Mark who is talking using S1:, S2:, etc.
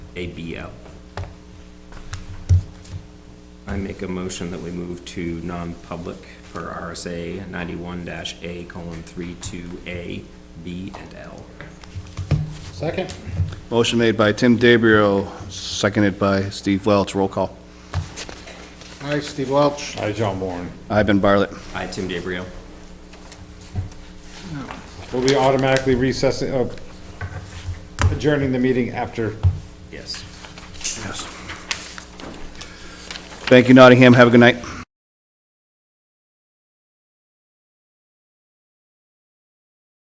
S1: ABO. I make a motion that we move to non-public for RSA ninety-one dash A colon three two A, B, and L.
S2: Second?
S3: Motion made by Tim DeBrio, seconded by Steve Welch. Roll call.
S2: Aye, Steve Welch.
S4: Hi, John Bourne.
S3: I've been Bartlett.
S1: I, Tim DeBrio.
S4: Will we automatically recess, uh, adjourning the meeting after?
S1: Yes.
S3: Yes. Thank you, Nottingham. Have a good night.